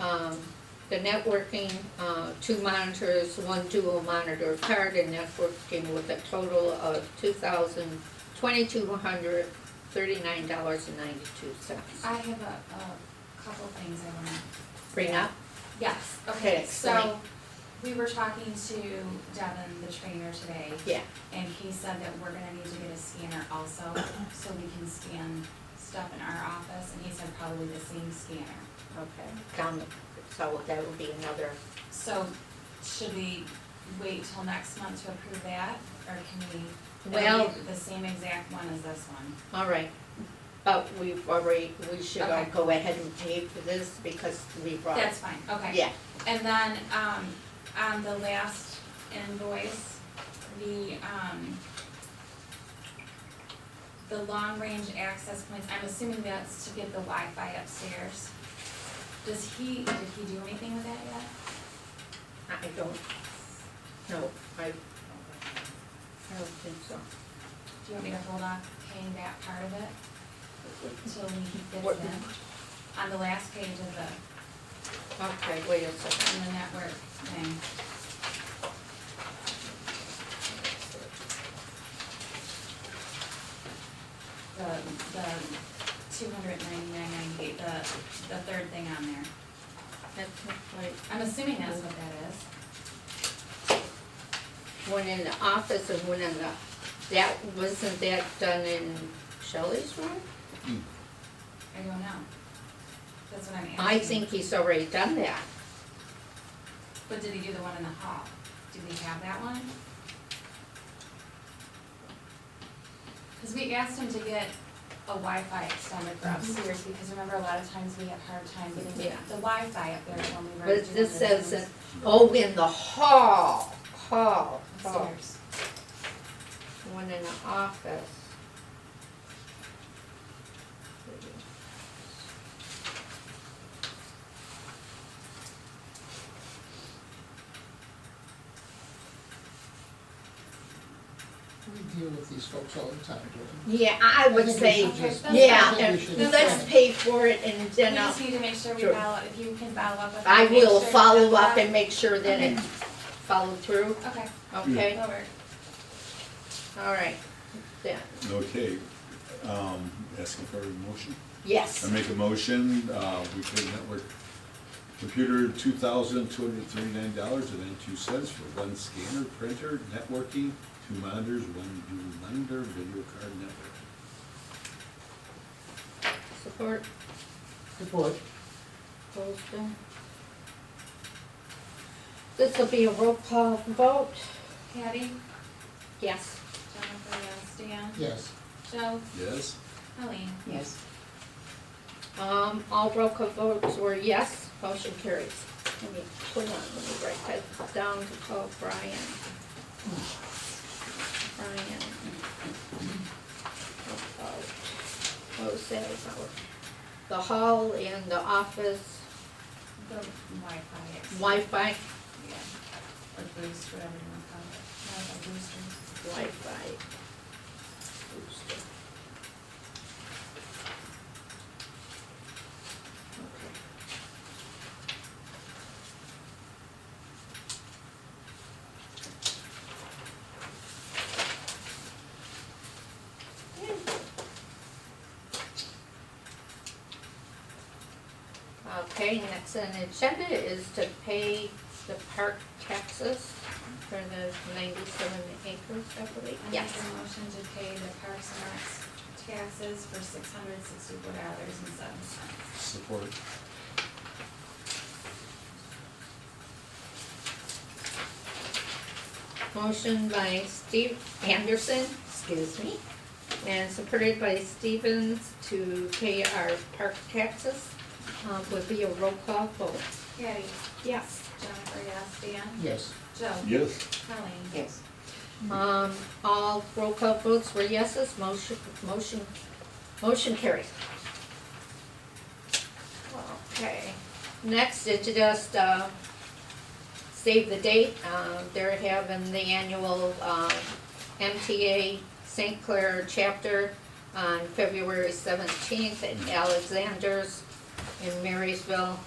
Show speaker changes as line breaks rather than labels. um, the networking, uh, two monitors, one dual monitor card and networking with a total of two thousand, twenty-two hundred, thirty-nine dollars and ninety-two cents.
I have a, a couple things I wanna,
Bring up?
yes,
Okay,
okay,
explain.
so, we were talking to Devin, the trainer today.
Yeah.
And he said that we're gonna need to get a scanner also, so we can scan stuff in our office, and he said probably the same scanner.
Okay. Down, so that would be another,
So, should we wait till next month to approve that, or can we?
Well-
it'll be The same exact one as this one.
all right. But we've already, we should all
Okay.
go ahead and pay for this because we brought.
That's fine, okay.
Yeah,
And then, um, on the last invoice, the, um, the long-range access points, I'm assuming that's to get the Wi-Fi upstairs. Does he, did he do anything with that yet?
I don't, no, I, I don't think so.
Do you want me to hold off paying that part of it till we get
What-
in? On the last page of the,
Okay, wait a second.
on the network thing. the, the two hundred ninety-nine ninety-eight, the, the third thing on there.
That's not right.
I'm assuming that's what that is.
One in the office and one in the, that, wasn't that done in Shelley's room?
I don't know. That's what I'm asking.
I think he's already done that.
But did he do the one in the hall? Do we have that one? Cause we asked him to get a Wi-Fi extender for upstairs, because remember, a lot of times we have hard time getting
Mm-hmm. Yeah.
the Wi-Fi up there when we were.
But
doing
this
the
says,
Zooms
that- oh, in the hall, hall, hall.
Upstairs.
One in the office.
We deal with these folks all the time, don't
Yeah, I
we?
would
I think we
say,
should just-
Okay,
yeah,
I think we
and
should-
let's pay for it and
We
then I'll-
just need to make sure we
Sure.
follow, if you can follow up with.
I
him, make
will
sure you
follow up
that.
and make sure that it followed through,
Okay,
okay?
that'll work.
All right, yeah,
Okay, um, asking for a motion. I
yes,
make a motion, uh, we pay network computer two thousand two hundred thirty-nine dollars and ninety-two cents for one scanner, printer, networking, two monitors, one new monitor, video card network.
support,
Support.
Holston. This will be a roll call vote,
Patty,
yes,
Jennifer, yes, Dan,
Yes,
Joe,
Yes?
Colleen.
Yes.
um, all roll call votes were yes, motion carries. Let me, hold on, let me write that down to call Brian. Brian. About Jose, the hall and the office
The Wi-Fi. ex-
Wi-Fi,
Yeah, or boost, whatever you wanna call it, Wi-Fi boosters.
Wi-Fi. booster. Okay. Okay, next on the agenda is to pay the park taxes for the ninety-seven acres, I believe.
I make a motion to pay the Parks and Recs taxes for six hundred sixty-four dollars and seven cents.
Support.
Motion by Steve Anderson, excuse me, and supported by Stevens to pay our park taxes. Um, would be a roll call vote.
Patty,
Yes.
Jennifer, yes, Dan,
yes.
Joe,
Yes.
Colleen.
Yes.
Um, all roll call votes were yeses, motion, motion, motion carried. Okay, next, it's just, uh, save the date, um, they're having the annual, um, MTA St. Clair chapter on February seventeenth at Alexander's. in Marysville